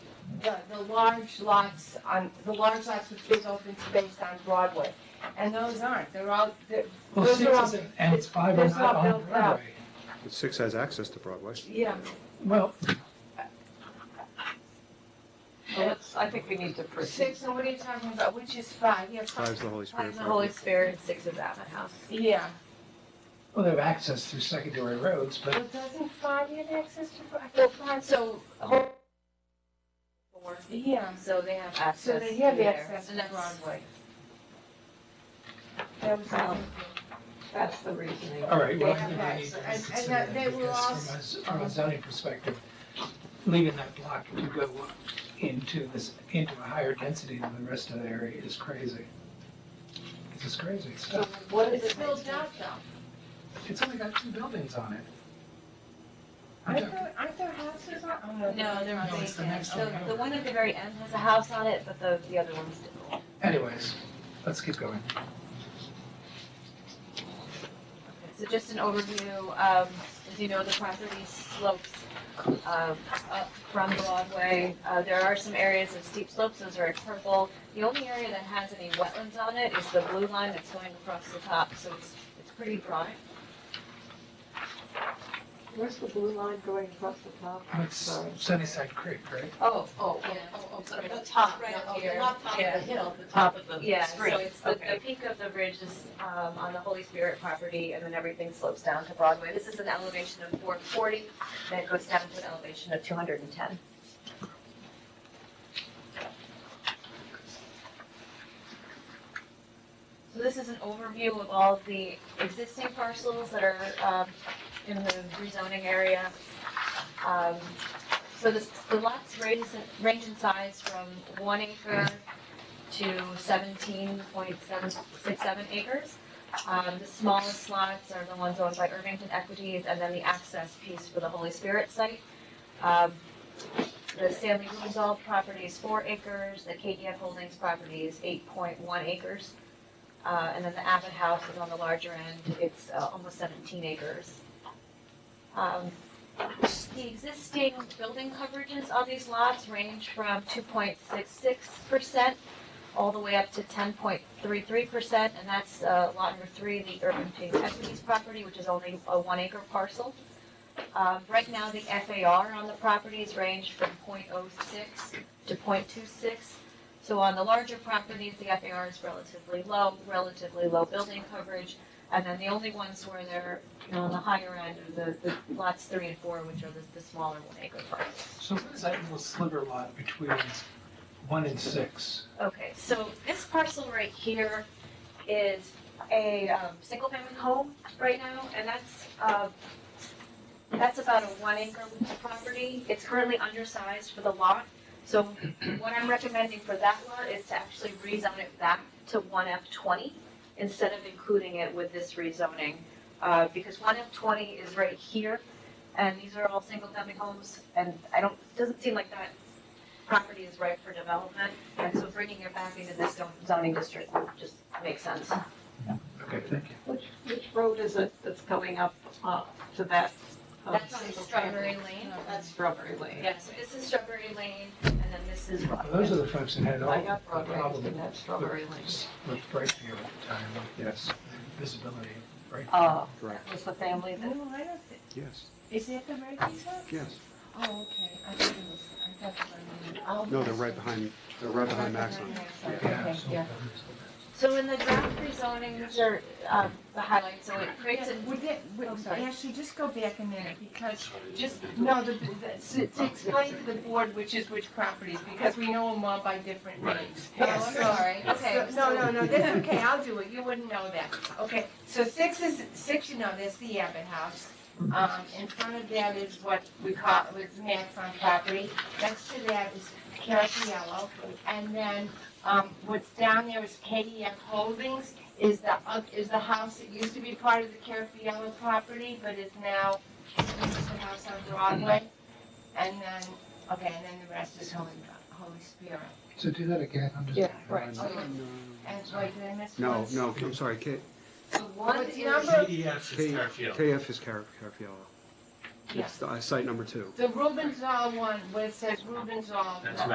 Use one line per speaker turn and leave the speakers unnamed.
the large lots on, the large lots with big open space on Broadway. And those aren't, they're all, they're,
Well,
Those are all-
six is, and it's five are
those are
not
all
on
built out.
Broadway.
But Six has access to Broadway.
yeah.
Well,
Well, let's- I think we need to proceed.
Six, and what are you talking about? Which is five, yeah, five.
Five's the Holy Spirit.
Five's the Holy
Broadway.
Spirit, six is Abbott House.
Yeah.
well, they have access through secondary roads, but
But doesn't five have access to, I thought five, so,
Whole- Four.
yeah.
So they have
So
access
they have
there.
access
And
to
that's-
Broadway. That was all.
That's the reasoning.
All right, well, I
Yeah,
think
right.
we need to
And- and
reconsider
that they
that,
will all-
because from a z- from a zoning perspective, leaving that block to go into this, into a higher density than the rest of the area is crazy. It's just crazy
So
stuff.
what is
It's
it?
built out though.
It's only got two buildings on it. I'm
Aren't
joking.
there, aren't there houses on? oh,
No, they're
No,
on
it's the
vacant.
next
The,
one.
the one at the very end has a house on it, but the, the other ones didn't.
Anyways, let's keep going.
So just an overview, um, as you know, the property slopes, um, up from Broadway. Uh, there are some areas of steep slopes, those are in purple. The only area that has any wetlands on it is the blue line that's going across the top, so it's, it's pretty broad.
Where's the blue line going across the top?
It's
Sorry.
Sunnyside Creek, right?
Oh, oh,
Yeah.
oh, oh, sorry, the top, right up here.
Not top of the
hill, the top of
Yeah, so it's the, the
Okay.
peak of the ridge is um, on the Holy Spirit property, and then everything slopes down to Broadway. This is an elevation of 440, then it goes down to an elevation of 210. So this is an overview of all of the existing parcels that are um, in the rezoning area. Um, So this, the lots range range in size from one acre to seventeen point seven, six, seven acres. Um, the smallest lots are the ones owned by Irvington Equities, and then the access piece for the Holy Spirit site. Um, the Stanley Roosevelt property is four acres, the KDF Holdings property is eight point one acres. Uh, and then the Abbott House is on the larger end, it's uh, almost seventeen acres. Um, the existing building coverages on these lots range from two point six six percent all the way up to ten point three three percent, and that's uh, lot number three, the urban Pink equities property, which is only a one acre parcel. Um, Right now, the FAR on the properties range from 0.06 to 0.26. So on the larger properties, the FAR is relatively low, relatively low building coverage. And then the only ones where they're, you know, on the higher end are the, the lots three and four, which are the, the smaller one acre parcels.
So what is that little sliver lot between one and six?
Okay, so this parcel right here is a um, single-family home right now, and that's, uh, that's about a one-acre property. It's currently undersized for the lot, so what I'm recommending for that lot is to actually rezone it back to 1F20 instead of including it with this rezoning, uh, because 1F20 is right here, and these are all single-family homes, and I don't, doesn't seem like that property is ripe for development. And so bringing it back into this zoning district would just make sense.
Okay, thank you.
Which, which road is it that's going up, uh, to that? uh,
That's on
single
Strawberry
family?
Lane.
That's Strawberry Lane.
Yeah, so this is Strawberry Lane, and then this is
Well, Those are
Broadway.
the folks that had all
I
the
got Broadway, and
problems
that's Strawberry Lane.
with Brightview at the time, with
Yes,
the visibility. Right.
Uh,
Correct.
was the family that,
No, Oh, I don't think,
yes,
is it the Murphy's house?
yes.
Oh, okay, I thought it was, I thought it was. oh,
No, they're right
okay.
behind, they're right behind Maxon.
Okay, yeah.
So in the draft rezoning, these are um, the highlights, so it creates a,
Would that, would,
I'm sorry.
actually, just go back a minute, because, just, no, the, the- to to explain to the board which is which properties, because we know them all by different names.
oh, I'm sorry, okay.
So- No, no, no, that's okay, I'll do it, you wouldn't know that. Okay, so six is, six, you know, that's the Abbott House. Um, in front of that is what we call, was Max on property. Next to that is Carriello. And then, um, what's down there is KDF Holdings, is the, oth- is the house that used to be part of the Carriello property, but is now, this is the house on Broadway. And then, okay, and then the rest is Holy, Holy Spirit.
So do that again, I'm just.
Yeah,
Behind-
Okay. And, wait, did I miss one?
No, no, I'm sorry, K,
So one
What's
is,
the number?
PDF
K-
is Fairfield.
KF is Car- Carfiello.
Yeah.
It's the- uh, site number two.
The Rubens all one, where it says Rubens all.
That's right.